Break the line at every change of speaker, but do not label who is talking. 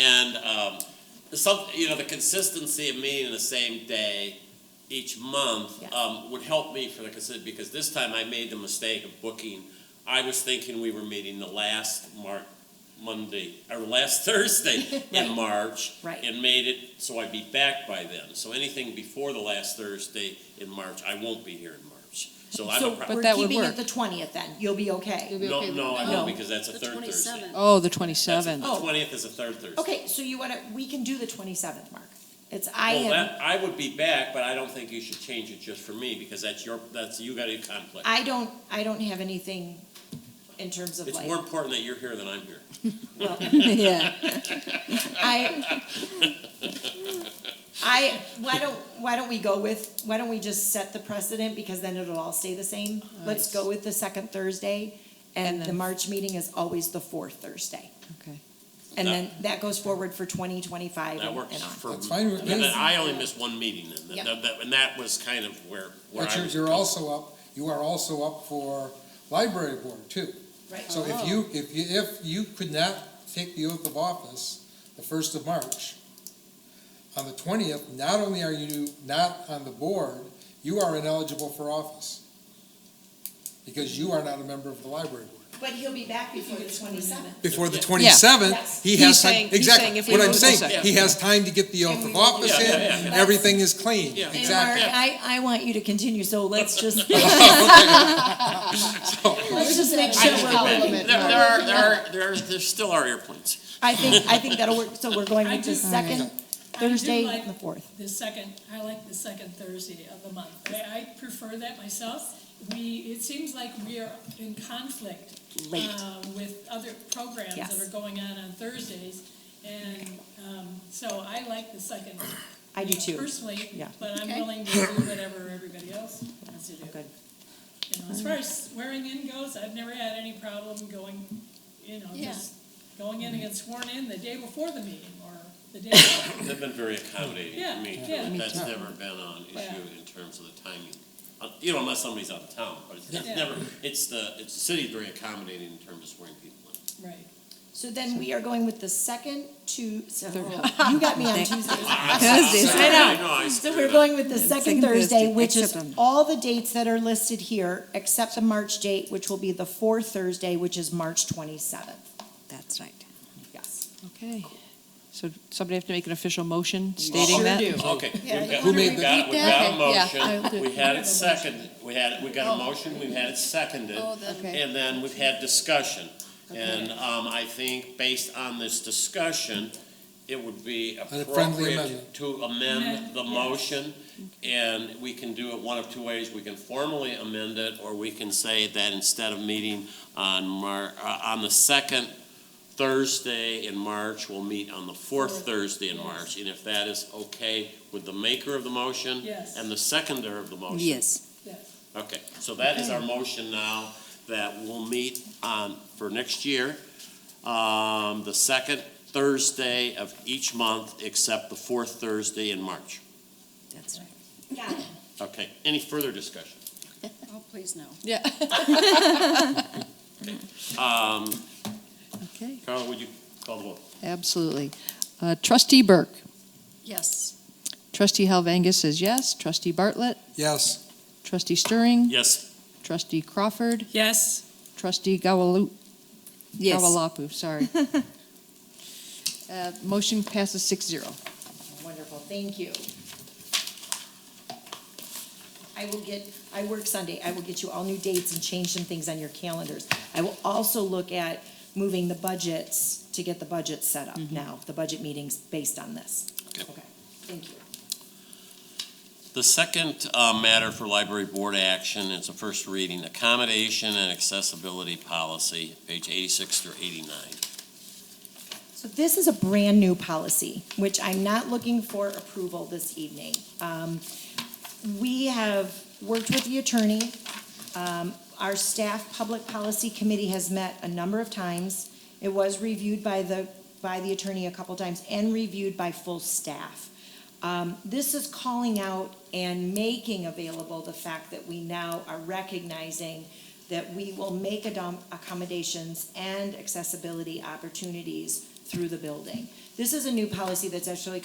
And um, some, you know, the consistency of meeting the same day each month
Yeah.
um, would help me for the consistency because this time I made the mistake of booking. I was thinking we were meeting the last Mar- Monday or last Thursday
Right.
in March,
Right.
and made it so I'd be back by then. So anything before the last Thursday in March, I won't be here in March. So I'm
So
a pro-
But
we're
that would
keeping it
work.
the twentieth then, you'll be okay.
be
no,
okay with
no, I
that?
won't
No.
because that's a
The
third Thursday.
27th.
Oh, the
That's a-
27th.
The twentieth is a third Thursday.
Okay, so you wanna, we can do the twenty-seventh, Mark. It's, I
Well,
am,
that, I would be back, but I don't think you should change it just for me, because that's your, that's, you got a conflict.
I don't, I don't have anything in terms of
It's
like,
more important that you're here than I'm here.
well,
Yeah.
I, I, why don't, why don't we go with, why don't we just set the precedent, because then it'll all stay the same? Let's go with the second Thursday, and the
then-
March meeting is always the fourth Thursday.
Okay.
And
That-
then that goes forward for twenty twenty-five
That
and
works
and on.
for.
That's fine with
and then
me.
I only missed one meeting, and
Yep.
that, that- and that was kind of where, where
But
I
you're,
was.
you're
coming.
also up, you are also up for library board too. So if you, if you, if you could not take the oath of office the first of March, on the twentieth, not only are you not on the board, you are ineligible for office. Because you are not a member of the library board.
But he'll be back before the twenty-seventh.
Before the
Yeah.
twenty-seventh, he
He's
has time,
saying- he's saying
exactly,
if we
what I'm
lose the
saying,
second.
he has time to get the oath
And we
of
won't
office
be- Yeah,
in,
yeah,
and everything is clean,
Yeah. And
And Mark,
exactly.
I, I want you to continue, so let's just, let's just make
I
sure
just-
we're ready.
There, there are, there are, there are, there still are airplanes.
I think, I think that'll work, so we're going with the
I do-
second
do
Thursday
like-
and the fourth.
The second, I like the second Thursday of the month. I, I prefer that myself. We, it seems like we are in conflict
Late.
uh, with other programs
Yes.
that are going on on Thursdays. And, um, so I like the second.
I do too.
Personally,
Yeah.
but I'm
Okay.
willing to do whatever everybody else wants to do.
Oh, Good.
You
Mm.
know, as far as swearing in goes, I've never had any problem going, you know,
Yeah.
just going in and get sworn in the day before the meeting or the day. before.
They've been very accommodating to
Yeah,
me,
yeah.
too.
Me
That's never been an issue in terms of the timing. Uh, You know, unless somebody's out of town, but it's it's
Yeah.
never, it's the, it's, the city's very accommodating in terms of swearing people in.
Right.
So then we are going with the second two, so, oh, you got me on Tuesday.
Thursdays.
I know. I
So
screwed
we're
up.
going with the second
second Thursday,
Thursday, which is
except on-
all the dates that are listed here, except the March date, which will be the fourth Thursday, which is March twenty-seventh.
That's right.
Yes.
Okay. So somebody have to make an official motion stating that?
Okay, we've
Yeah,
got,
you wanna
repeat
we've got, we've
that?
got a
Okay, yeah, I'll do
motion,
it.
we had it seconded, we had, we got a motion, we've had it seconded,
Oh, the- Okay.
and then we've had discussion. And, um, I think based on this discussion, it would be
friendly
appropriate
amendment.
to amend
Amend,
the
yeah.
motion. And we can do it one of two ways, we can formally amend it, or we can say that instead of meeting on Mar, uh, on the second Thursday in March, we'll meet on the fourth
Fourth,
Thursday in
yes.
March. And if that is okay with the maker of the motion?
Yes.
And the seconder of the motion?
Yes.
Yes.
Okay, so that is our motion now, that we'll meet on, for next year, um, the second Thursday of each month, except the fourth Thursday in March.
That's right.
Got it.
Okay, any further discussion?
Oh, please, no.
Yeah.
Um,
Okay,
Carla, would you call the vote?
absolutely. Uh, Trustee Burke.
Yes.
Trustee Helvangus says yes. Trustee Bartlett.
Yes.
Trustee Stirring.
Yes.
Trustee Crawford.
Yes.
Trustee Gawalu.
Yes.
Gawalapu, sorry. Uh, Motion passes six zero.
Wonderful, thank you. I will get, I work Sunday, I will get you all new dates and change some things on your calendars. I will also look at moving the budgets to get the budget set up now, the budget meetings based on this.
Okay.
Thank you.
The second uh, matter for library board action is a first reading, accommodation and accessibility policy, page 86 through 89.
So this is a brand-new policy, which I'm not looking for approval this evening. Um, We have worked with the attorney. Um, Our staff public policy committee has met a number of times. It was reviewed by the, by the attorney a couple times and reviewed by full staff. Um, This is calling out and making available the fact that we now are recognizing that we will make adom- accommodations and accessibility opportunities through the building. This is a new policy that's actually